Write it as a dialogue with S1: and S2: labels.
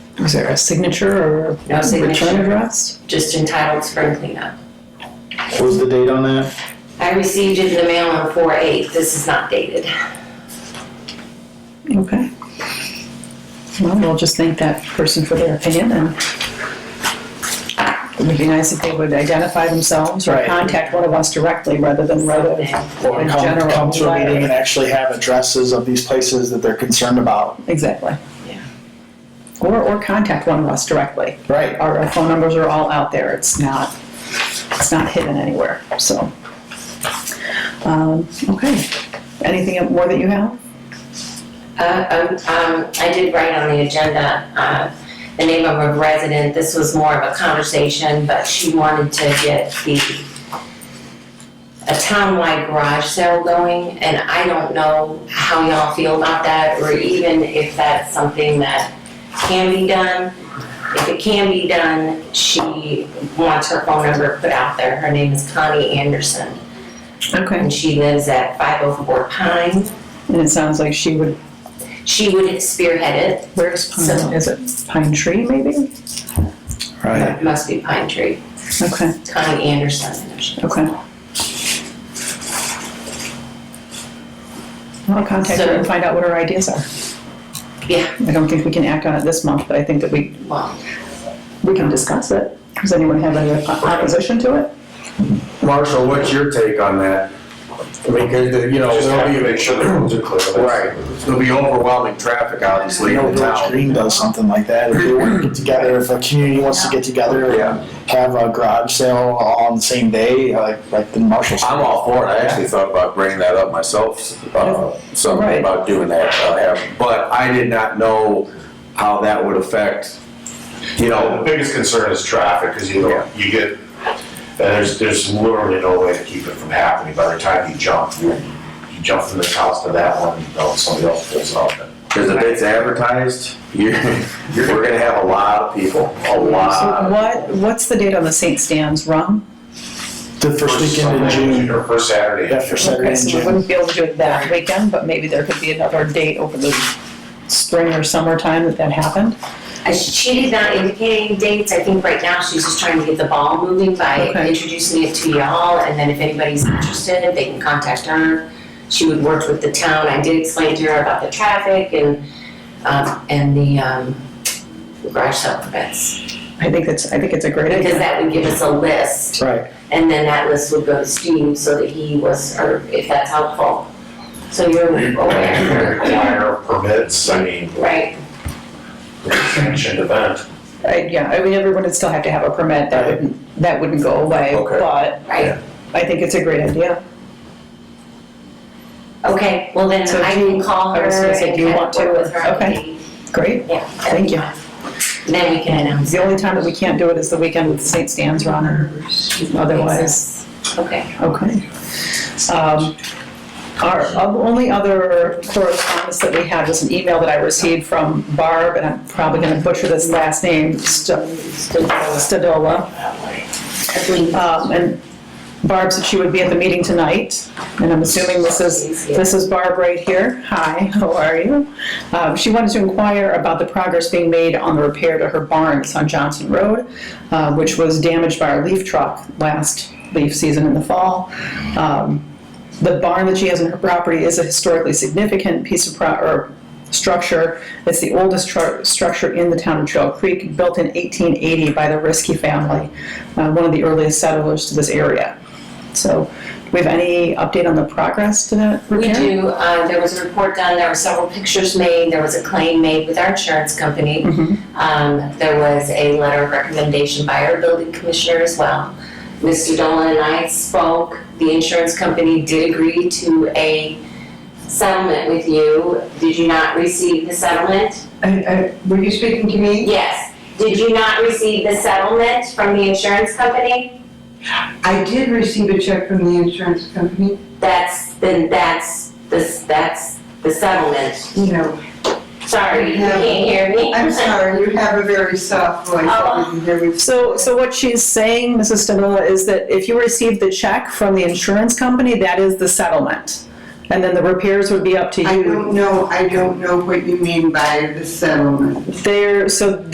S1: Is there a signature or
S2: No
S1: a return
S2: signature.
S1: address?
S2: just entitled spring cleanup.
S3: What was the date on that?
S2: I received it in the mail on four eight, this is not dated.
S1: Okay. Well, we'll just thank that person for their opinion and it would be nice if they would identify themselves or
S3: Right.
S1: contact one of us directly rather than write a,
S3: Or
S1: In
S3: come,
S1: general,
S3: come to a
S1: letter.
S3: meeting and actually have addresses of these places that they're concerned about.
S1: exactly.
S2: Yeah.
S1: Or, or contact one of us directly.
S3: Right.
S1: Our our phone numbers are all out there, it's not, it's not hidden anywhere, so. Um, okay, anything more that you have?
S2: Uh, um, um, I did write on the agenda, uh, the name of a resident, this was more of a conversation, but she wanted to get the, a townwide garage sale going, and I don't know how y'all feel about that, or even if that's something that can be done. If it can be done, she wants her phone number put out there, her name is Connie Anderson,
S1: Okay.
S2: and she lives at five oh four Pine.
S1: And it sounds like she would,
S2: She would spearhead it,
S1: where's
S2: So-
S1: Pine, is it Pine Tree maybe?
S3: Right.
S2: It Must be Pine Tree,
S1: Okay,
S2: Connie Anderson.
S1: okay. I'll contact her and find out what her ideas are.
S2: Yeah,
S1: I don't think we can act on it this month, but I think that we,
S2: well,
S1: we can discuss it. Does anyone have any opposition to it?
S4: Marshall, what's your take on that? I mean, 'cause the- you know,
S5: Just have to
S4: there'll be,
S5: make sure the roads are clear.
S4: right, there'll be overwhelming traffic, obviously,
S3: know
S4: in
S3: Village
S4: town.
S3: Green does something like that, if they want to get together, if a community wants to get together
S4: Yeah.
S3: and have a garage sale all on the same day, like, like the Marshall's.
S4: I'm all for it, I actually thought about bringing that up myself, uh,
S1: Right.
S4: something about doing that, uh, have- but I did not know how that would affect, you
S5: The
S4: know,
S5: biggest concern is traffic, because you
S4: Yeah.
S5: know, you get, and there's, there's literally no way to keep it from happening. By the time you jump, you, you jump from this house to that one, you know, somebody else pulls up.
S4: because if it's advertised, you're, you're, we're gonna have a lot of people, a
S1: So
S4: lot.
S1: what, what's the date on the St. Stan's run?
S3: The first weekend in
S5: Sunday,
S3: June,
S5: Or first Saturday.
S3: Yeah, first Saturday.
S1: Okay, so we
S3: June.
S1: wouldn't be able to do it that weekend, but maybe there could be another date over the spring or summertime that that happened?
S2: I- she did not indicate any dates, I think right now she's just trying to get the ball moving by
S1: Okay.
S2: introducing it to y'all, and then if anybody's interested, they can contact her. She would work with the town, I did explain to her about the traffic and, um, and the, um, garage sale permits.
S1: I think it's, I think it's a great
S2: Because
S1: idea.
S2: that would give us a list,
S3: right,
S2: and then that list would go to Steve, so that he was, or if that's helpful. So you're aware,
S5: Require permits, I mean,
S2: right?
S5: sanctioned event.
S1: I- Yeah, I mean, everyone would still have to have a permit, that wouldn't, that wouldn't go away,
S4: Okay.
S1: but
S2: Right,
S1: I think it's a great idea.
S2: okay, well then
S1: So
S2: I
S1: do
S2: can call
S1: I
S2: her
S1: was gonna
S2: and
S1: say, do you
S2: kind
S1: want
S2: of
S1: to?
S2: work with her.
S1: Okay. Great.
S2: Yeah.
S1: Thank you.
S2: Then we can announce.
S1: The only time that we can't do it is the weekend with St. Stan's run or otherwise.
S2: Okay,
S1: Okay. Um, Our o- only other correspondence that we had was an email that I received from Barb, and I'm probably gonna butcher this last name, Sta- Stadola.
S2: I believe,
S1: Um, And Barb said she would be at the meeting tonight, and I'm assuming this is, this is Barb right here. Hi, how are you? Um, She wanted to inquire about the progress being made on the repair to her barn that's on Johnson Road, uh, which was damaged by our leaf truck last leaf season in the fall. Um, The barn that she has on her property is a historically significant piece of pro, or structure. It's the oldest tru- structure in the town of Trail Creek, built in 1880 by the Risky family, uh, one of the earliest settlers to this area. So, do we have any update on the progress to that
S2: we
S1: repair?
S2: do, uh, there was a report done, there were several pictures made, there was a claim made with our insurance company.
S6: Mm-hmm.
S1: Mhm.
S2: Um, there was a letter of recommendation by our building commissioner as well. Mr. Dolan and I spoke, the insurance company did agree to a settlement with you. Did you not receive the settlement?
S6: I, I, were you speaking to me?
S2: Yes. Did you not receive the settlement from the insurance company?
S6: I did receive a check from the insurance company,
S2: That's, then that's, the that's the settlement.
S6: you know,
S2: Sorry, you can't hear me.
S6: I'm sorry, you have a very soft voice, I didn't hear you.
S1: Oh. So, so what she's saying, Mrs. Stanola, is that if you received the check from the insurance company, that is the settlement. And then the repairs would be up to
S6: I
S1: you.
S6: don't know, I don't know what you mean by the settlement.
S1: There, so